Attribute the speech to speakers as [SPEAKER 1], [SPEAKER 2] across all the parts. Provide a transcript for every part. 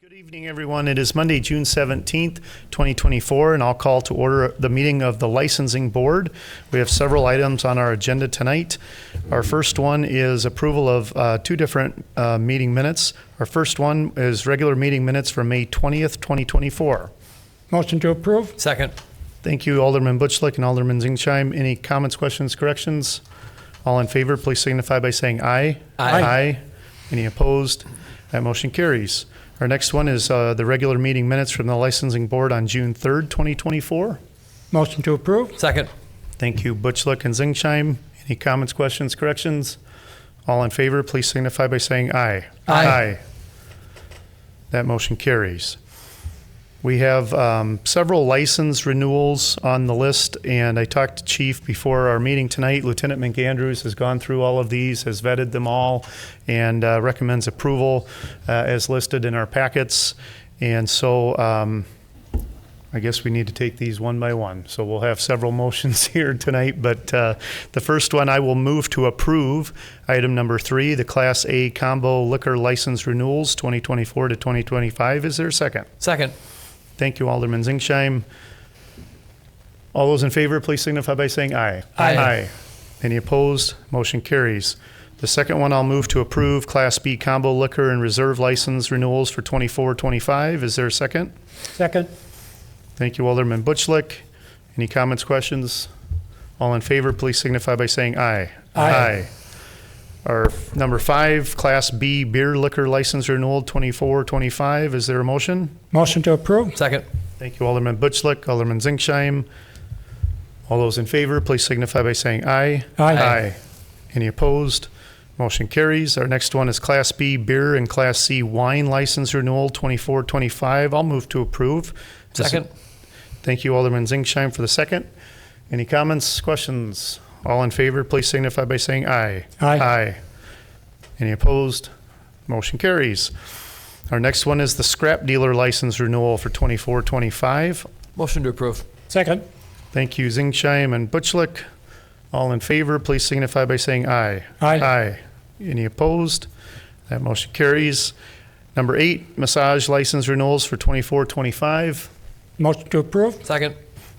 [SPEAKER 1] Good evening, everyone. It is Monday, June 17th, 2024, and I'll call to order the meeting of the Licensing Board. We have several items on our agenda tonight. Our first one is approval of uh, two different uh, meeting minutes. Our first one is regular meeting minutes for May 20th, 2024.
[SPEAKER 2] Motion to approve?
[SPEAKER 3] Second.
[SPEAKER 1] Thank you, Alderman Butchlick and Alderman Zingsheim. Any comments, questions, corrections? All in favor, please signify by saying aye.
[SPEAKER 3] Aye.
[SPEAKER 1] Any opposed? That motion carries. Our next one is uh, the regular meeting minutes from the Licensing Board on June 3rd, 2024.
[SPEAKER 2] Motion to approve?
[SPEAKER 3] Second.
[SPEAKER 1] Thank you, Butchlick and Zingsheim. Any comments, questions, corrections? All in favor, please signify by saying aye.
[SPEAKER 3] Aye.
[SPEAKER 1] That motion carries. We have um, several license renewals on the list, and I talked to Chief before our meeting tonight. Lieutenant McAndrews has gone through all of these, has vetted them all, and uh, recommends approval uh, as listed in our packets. And so um, I guess we need to take these one by one. So we'll have several motions here tonight, but uh, the first one, I will move to approve item number three, the Class A Combo Liquor License Renewals 2024 to 2025. Is there a second?
[SPEAKER 3] Second.
[SPEAKER 1] Thank you, Alderman Zingsheim. All those in favor, please signify by saying aye.
[SPEAKER 3] Aye.
[SPEAKER 1] Any opposed? Motion carries. The second one, I'll move to approve Class B Combo Liquor and Reserve License Renewals for 24, 25. Is there a second?
[SPEAKER 2] Second?
[SPEAKER 1] Thank you, Alderman Butchlick. Any comments, questions? All in favor, please signify by saying aye.
[SPEAKER 2] Aye.
[SPEAKER 1] Our f- number five, Class B beer liquor license renewal 2425. Is there a motion?
[SPEAKER 2] Motion to approve?
[SPEAKER 3] Second.
[SPEAKER 1] Thank you, Alderman Butchlick, Alderman Zingsheim. All those in favor, please signify by saying aye.
[SPEAKER 2] Aye.
[SPEAKER 1] Aye. Any opposed? Motion carries. Our next one is Class B beer and Class C wine license renewal 2425. I'll move to approve. Does-
[SPEAKER 3] Second.
[SPEAKER 1] Thank you, Alderman Zingsheim, for the second. Any comments, questions? All in favor, please signify by saying aye.
[SPEAKER 2] Aye.
[SPEAKER 1] Any opposed? Motion carries. Our next one is the scrap dealer license renewal for 2425.
[SPEAKER 3] Motion to approve.
[SPEAKER 2] Second?
[SPEAKER 1] Thank you, Zingsheim and Butchlick. All in favor, please signify by saying aye.
[SPEAKER 2] Aye.
[SPEAKER 1] Any opposed? That motion carries. Number eight, massage license renewals for 2425.
[SPEAKER 2] Motion to approve?
[SPEAKER 3] Second.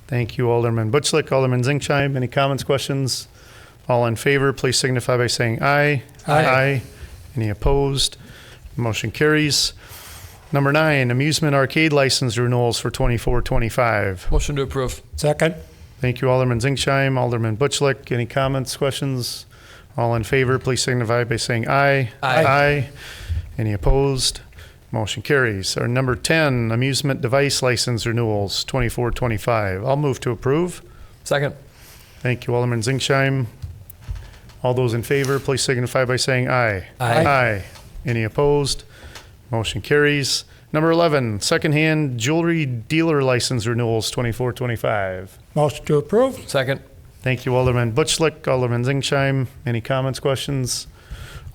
[SPEAKER 1] Thank you, Alderman Butchlick, Alderman Zingsheim. Any comments, questions? All in favor, please signify by saying aye.
[SPEAKER 2] Aye.
[SPEAKER 1] Any opposed? Motion carries. Number nine, amusement arcade license renewals for 2425.
[SPEAKER 3] Motion to approve.
[SPEAKER 2] Second?
[SPEAKER 1] Thank you, Alderman Zingsheim, Alderman Butchlick. Any comments, questions? All in favor, please signify by saying aye.
[SPEAKER 3] Aye.
[SPEAKER 1] Any opposed? Motion carries. Our number 10, amusement device license renewals, 2425. I'll move to approve.
[SPEAKER 3] Second.
[SPEAKER 1] Thank you, Alderman Zingsheim. All those in favor, please signify by saying aye.
[SPEAKER 3] Aye.
[SPEAKER 1] Any opposed? Motion carries. Number 11, secondhand jewelry dealer license renewals, 2425.
[SPEAKER 2] Motion to approve?
[SPEAKER 3] Second.
[SPEAKER 1] Thank you, Alderman Butchlick, Alderman Zingsheim. Any comments, questions?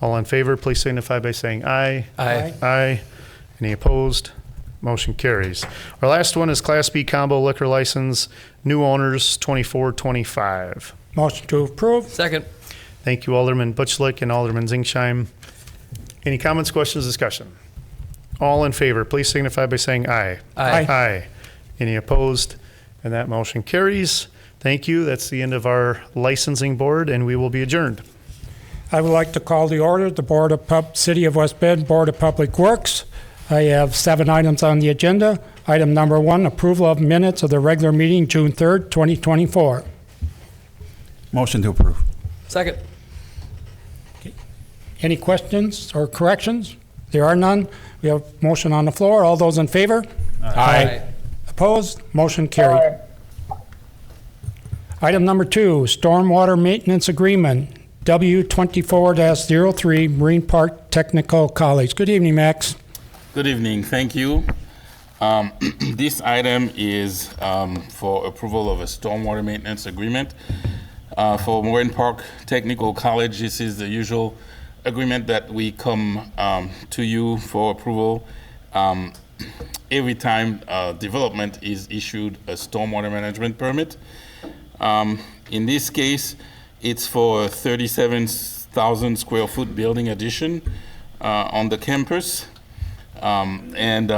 [SPEAKER 1] All in favor, please signify by saying aye.
[SPEAKER 3] Aye.
[SPEAKER 1] Aye. Any opposed? Motion carries. Our last one is Class B Combo Liquor License, new owners, 2425.
[SPEAKER 2] Motion to approve?
[SPEAKER 3] Second.
[SPEAKER 1] Thank you, Alderman Butchlick and Alderman Zingsheim. Any comments, questions, discussion? All in favor, please signify by saying aye.
[SPEAKER 3] Aye.
[SPEAKER 1] Aye. Any opposed? And that motion carries. Thank you. That's the end of our licensing board, and we will be adjourned.
[SPEAKER 2] I would like to call the order, the Board of Pub, City of West Bend Board of Public Works. I have seven items on the agenda. Item number one, approval of minutes of the regular meeting, June 3rd, 2024.
[SPEAKER 4] Motion to approve.
[SPEAKER 3] Second.
[SPEAKER 2] Any questions or corrections? There are none. We have motion on the floor. All those in favor? Opposed? Motion carried. Item number two, Stormwater Maintenance Agreement, W24-03 Marine Park Technical College. Good evening, Max.
[SPEAKER 5] Good evening, thank you. Um, This item is um, for approval of a stormwater maintenance agreement uh, for Moraine Park Technical College. This is the usual agreement that we come um, to you for approval um, every time uh, development is issued a stormwater management permit. Um, In this case, it's for a 37,000 square foot building addition uh, on the campus. Um, And uh,